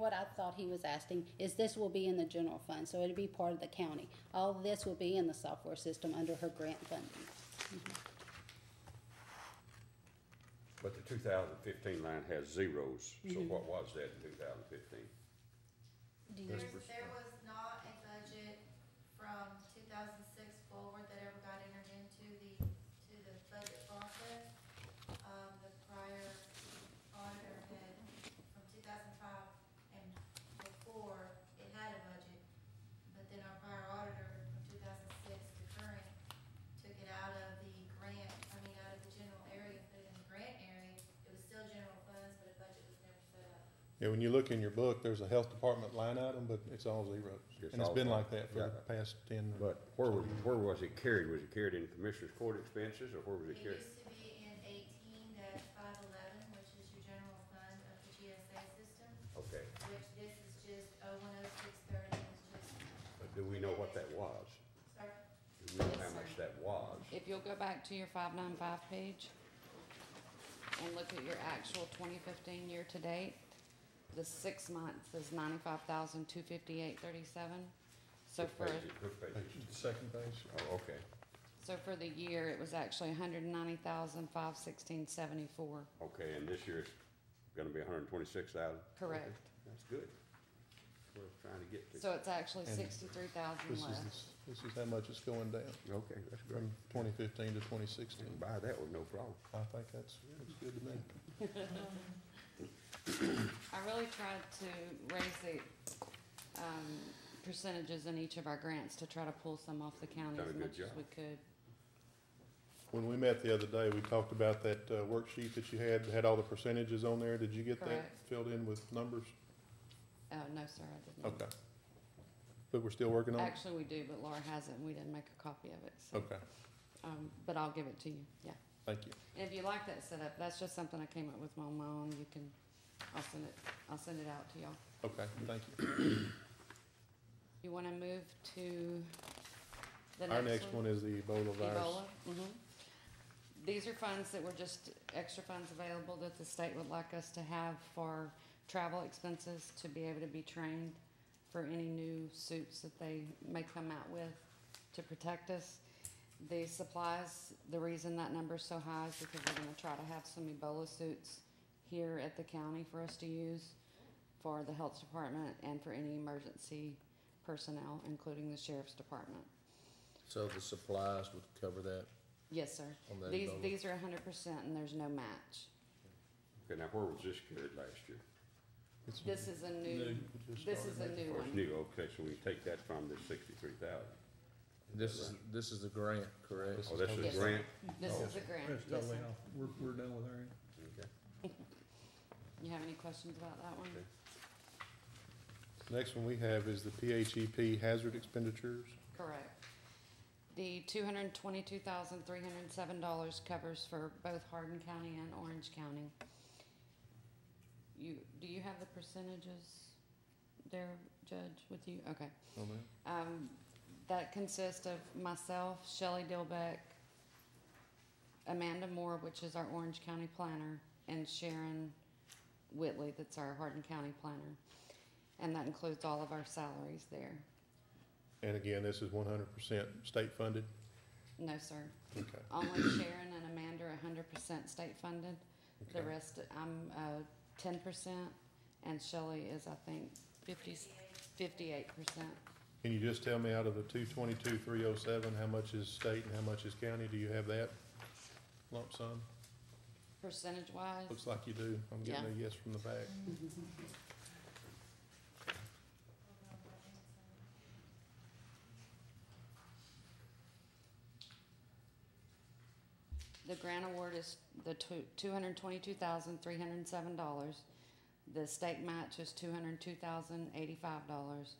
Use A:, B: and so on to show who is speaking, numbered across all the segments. A: what I thought he was asking, is this will be in the general fund, so it'd be part of the county. All this will be in the software system under her grant funding.
B: But the two thousand fifteen line has zeros, so
C: Mm-hmm.
B: what was that in two thousand fifteen?
A: Do you,
D: There's, there was not a budget from two thousand six forward that ever got entered into the, to the budget process. Um, the prior auditor had, from two thousand five and before, it had a budget. But then our prior auditor from two thousand six to current took it out of the grant, I mean, out of the general area, put it in the grant area. It was still general funds, but a budget was never set up.
E: Yeah, when you look in your book, there's a health department line item, but it's all zeros.
B: It's
E: And it's
B: all
E: been
B: zero.
E: like that for the
B: Yeah.
E: past ten.
B: But where was, where was it carried? Was it carried in commissioner's court expenses, or where was it
D: It
B: carried?
D: used to be in eighteen dash five eleven, which is your general fund of the GSA system,
B: Okay,
D: which this is just oh one oh six thirty, is just,
B: but do we know what that was?
D: sorry,
B: Do we know how much that was?
C: If you'll go back to your five nine five page and look at your actual twenty fifteen year to date, the six months is ninety-five thousand, two fifty-eight, thirty-seven. So
B: What
C: for,
B: page is- what page is-
E: The Second page.
B: Oh, okay.
C: so for the year, it was actually a hundred and ninety thousand, five sixteen, seventy-four,
B: Okay, and this year's gonna be hundred and twenty-six thousand?
C: correct?
B: That's good. We're trying to get to.
C: So it's actually
E: And This
C: sixty-three thousand
E: is,
C: left.
E: this- this is how much it's going down
B: Okay, that's great.
E: from twenty fifteen to twenty
B: You can
E: sixteen.
B: Buy that with no problem.
E: I think that's, that's good to me.
C: I really tried to raise the, um, percentages in each of our grants to try to pull some off the county
B: Done a
C: as
B: good
C: much as
B: job.
C: we could.
E: When we met the other day, we talked about that uh, worksheet that you had, that had all the percentages on there. Did you get that
C: Correct.
E: filled in with numbers?
C: Oh, no, sir, I didn't.
E: Okay. But we're still working on it?
C: Actually, we do, but Laura hasn't, and we didn't make a copy of it, so,
E: Okay,
C: um, but I'll give it to you, yeah.
E: thank you.
C: And if you like that setup, that's just something I came up with on my own, you can, I'll send it, I'll send it out to y'all.
E: Okay, thank you.
C: You wanna move to the
E: Our next one is the Ebola virus.
C: Ebola, mhm. These are funds that were just extra funds available that the state would like us to have for travel expenses to be able to be trained for any new suits that they may come out with to protect us. The supplies, the reason that number's so high is because we're gonna try to have some Ebola suits here at the county for us to use for the health department and for any emergency personnel, including the sheriff's department.
F: So the supplies would cover that
C: Yes, sir.
F: on that
C: These,
F: Ebola?
C: these are hundred percent and there's no match.
B: Okay, now where was this carried last year?
E: It's-
C: This is a new,
E: it just
C: this
E: started.
C: is a new
B: Or it's
C: one.
B: new, okay, so we take that from the sixty-three thousand.
F: This is, this is the grant, correct?
B: Oh, that's
C: Yes,
B: a
C: sir.
B: grant?
C: This is a grant.
G: That's
C: Yes,
G: totally
C: sir.
G: off, we're, we're done with our,
B: Okay.
C: You have any questions about that one?
B: Okay.
E: Next one we have is the PHEP hazard expenditures.
C: Correct. The two hundred and twenty-two thousand, three hundred and seven dollars covers for both Hardin County and Orange County. You, do you have the percentages there, Judge, with you? Okay.
E: on that.
C: Um, that consists of myself, Shelley Dilbeck, Amanda Moore, which is our Orange County planner, and Sharon Whitley, that's our Hardin County planner. And that includes all of our salaries there.
E: And again, this is one hundred percent state funded.
C: No, sir.
E: Okay.
C: Only Sharon and Amanda are hundred percent state funded. The
E: Okay.
C: rest, I'm, uh, ten percent, and Shelley is, I think, fifty, fifty-eight percent.
E: Can you just tell me out of the two twenty-two, three oh seven, how much is state and how much is county? Do you have that lump sum?
C: Percentage wise,
E: Looks like you do. I'm getting a yes from the back.
D: hold on, I think it's on.
C: The grant award is the two, two hundred twenty-two thousand, three hundred and seven dollars. The state match is two hundred two thousand, eighty-five dollars.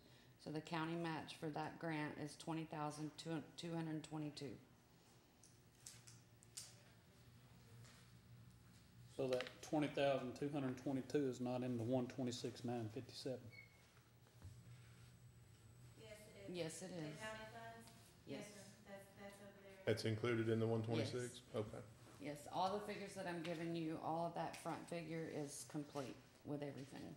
C: So the county match for that grant is twenty thousand, two, two hundred and twenty-two.
G: so that twenty thousand, two hundred and twenty-two is not in the one twenty-six, nine fifty-seven.
D: Yes, it is.
C: Yes, it
D: The
C: is.
D: county funds?
C: Yes.
D: sir. That's, that's over there.
E: That's included in the one twenty-six? Okay.
C: Yes, all the figures that I'm giving you, all of that front figure is complete with everything.